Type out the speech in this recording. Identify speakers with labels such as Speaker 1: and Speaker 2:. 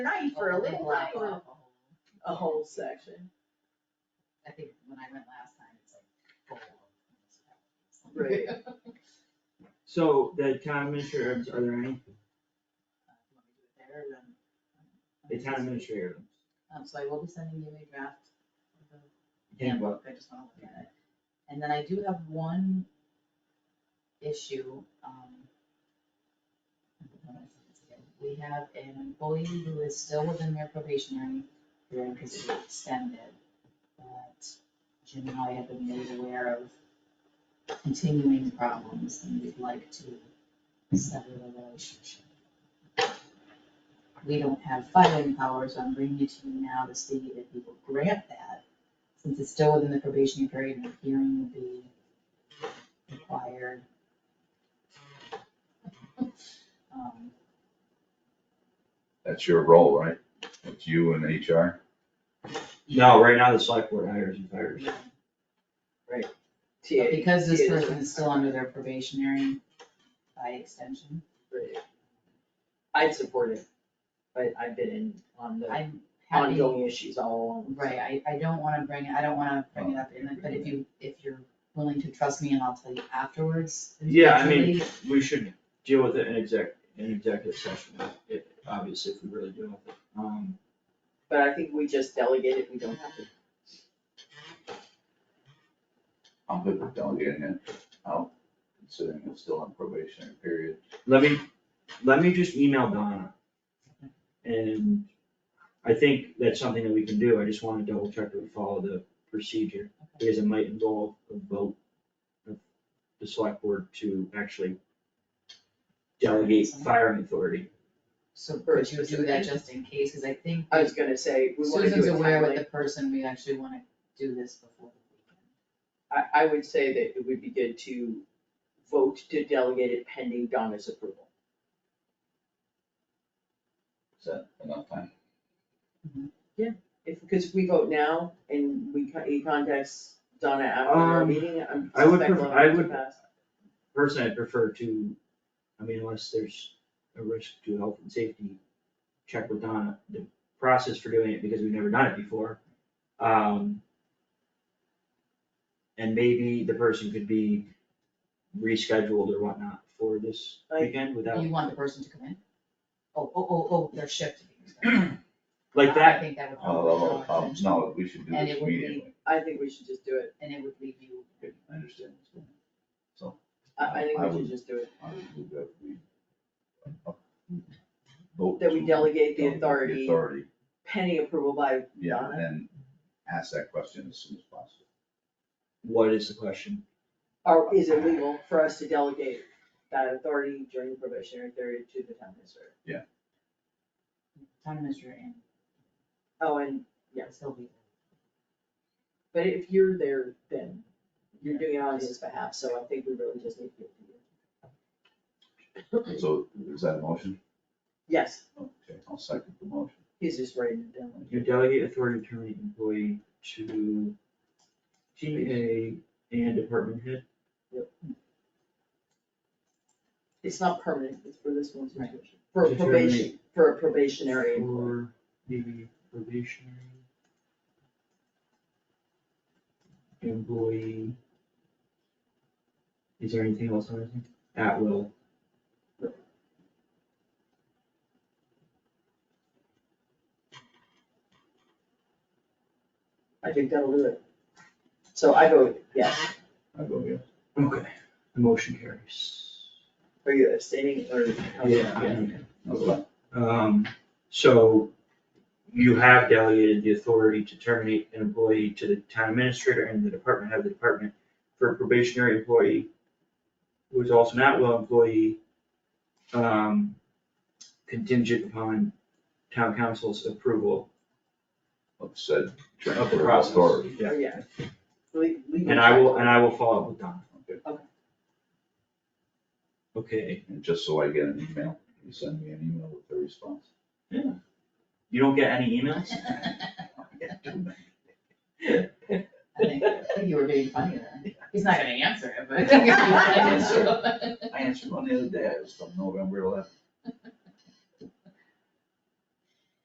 Speaker 1: night for a little
Speaker 2: black
Speaker 1: while,
Speaker 2: alcohol.
Speaker 1: a whole section,
Speaker 2: I think when I went last time, it's like full of municipalities.
Speaker 1: Right.
Speaker 2: Uh,
Speaker 3: So the town administrators, are there any,
Speaker 2: you want me to do it there or then?
Speaker 3: the town administrator,
Speaker 2: Um, so I will be sending you a draft of the
Speaker 3: handbook,
Speaker 2: handbook, I just wanna look at it. And then I do have one issue, um. We have an employee who is still within their probationary period because it was extended. But Jim and I have been made aware of continuing problems and we'd like to sever the relationship. We don't have filing power, so I'm bringing it to you now to see if you will grant that since it's still within the probationary period, and a hearing will be required. Um,
Speaker 4: That's your role, right? It's you and HR?
Speaker 3: no, right now the select board hires and fires,
Speaker 1: TA.
Speaker 2: Because this
Speaker 1: TA.
Speaker 2: person is still under their probationary by extension,
Speaker 1: Right. I'd support it, but I've been in on the
Speaker 2: I'm happy,
Speaker 1: ongoing issues all along.
Speaker 2: right, I, I don't wanna bring, it. I don't wanna bring it up in it, but if you, if you're willing to trust me and I'll tell you afterwards.
Speaker 3: Yeah, I mean,
Speaker 2: individually,
Speaker 3: we should deal with it in exec, in executive session, if, obviously, if we really deal with it. Um,
Speaker 1: But I think we just delegate it, we don't have to.
Speaker 4: I'm good with delegating it out, considering it's still on probationary period.
Speaker 3: let me, let me just email Donna. And I think that's something that we can do, I just wanna double check that we follow the procedure, because it might involve a vote of the select board to actually delegate firing authority.
Speaker 2: So
Speaker 1: for
Speaker 2: could you do that just in case, cause I think
Speaker 1: I was gonna say, we wanna do
Speaker 2: Susan's
Speaker 1: it
Speaker 2: aware with
Speaker 1: timely.
Speaker 2: the person, we actually wanna do this before the weekend.
Speaker 1: I, I would say that it would be good to vote to delegate it pending Donna's approval.
Speaker 4: Is that enough time?
Speaker 1: If, because we vote now and we, con- he contacts Donna after our
Speaker 3: Um,
Speaker 1: meeting, I'm
Speaker 3: I would
Speaker 1: suspect
Speaker 3: pref-
Speaker 1: we'll
Speaker 3: I
Speaker 1: have to
Speaker 3: would-
Speaker 1: pass.
Speaker 3: Personally, I prefer to, I mean, unless there's a risk to health and safety, check with Donna, the process for doing it, because we've never done it before. Um. And maybe the person could be rescheduled or whatnot for this
Speaker 1: Like-
Speaker 3: weekend without,
Speaker 2: You want the person to come in? Oh, oh, oh, oh, their shift. to be extended.
Speaker 3: like
Speaker 2: I
Speaker 3: that,
Speaker 2: think that would probably
Speaker 4: Oh,
Speaker 2: draw
Speaker 4: oh,
Speaker 2: attention,
Speaker 4: no, we should do
Speaker 2: And
Speaker 4: this
Speaker 2: it would be-
Speaker 4: immediately.
Speaker 1: I think we should just do it.
Speaker 2: and it would leave you,
Speaker 4: Okay, I understand. what's going on.
Speaker 1: I, I think
Speaker 4: I
Speaker 1: we
Speaker 4: would-
Speaker 1: should just do it.
Speaker 4: I would move that we, uh, vote
Speaker 1: That we
Speaker 4: to
Speaker 1: delegate the
Speaker 4: delegate
Speaker 1: authority
Speaker 4: Authority,
Speaker 1: pending approval by
Speaker 4: yeah,
Speaker 1: Donna.
Speaker 4: and ask that question as soon as possible.
Speaker 3: what is the question?
Speaker 1: Or is it legal for us to delegate that authority during probationary period to the town administrator?
Speaker 2: town administrator and
Speaker 1: Oh, and,
Speaker 2: yes, they'll be.
Speaker 1: but if you're there, then you're doing it on his behalf, so I think we really just need to.
Speaker 4: So is that a motion?
Speaker 1: Yes,
Speaker 4: Okay, I'll second the motion.
Speaker 1: he's just writing it down.
Speaker 3: You delegate authority to an employee to GA and department head.
Speaker 1: It's not permanent, it's for this one
Speaker 2: Right.
Speaker 1: situation. For a
Speaker 3: To
Speaker 1: probation, for a probationary employee.
Speaker 3: For the probationary employee. Is there anything else on this? thing? At will.
Speaker 1: I think that'll do it. So I vote yes.
Speaker 4: I go, yes.
Speaker 3: Okay. The motion carries.
Speaker 1: Are you abstaining or?
Speaker 4: Okay.
Speaker 3: Um, so you have delegated the authority to terminate an employee to the town administrator and the department head of the department for a probationary employee who is also an at-will employee, um, contingent upon town council's approval
Speaker 4: Let's say
Speaker 3: of the
Speaker 4: transfer of
Speaker 3: process.
Speaker 4: authority.
Speaker 3: Yeah.
Speaker 1: Yeah. Le- legal
Speaker 3: And I will,
Speaker 1: check.
Speaker 3: and I will follow up with Donna.
Speaker 1: Okay.
Speaker 3: Okay,
Speaker 4: And just so I get an email, you send me an email with the response.
Speaker 3: you don't get any emails?
Speaker 2: I think, I think you were being funny there. He's not gonna answer it, but.
Speaker 4: I answered one the other day, it was from November eleventh.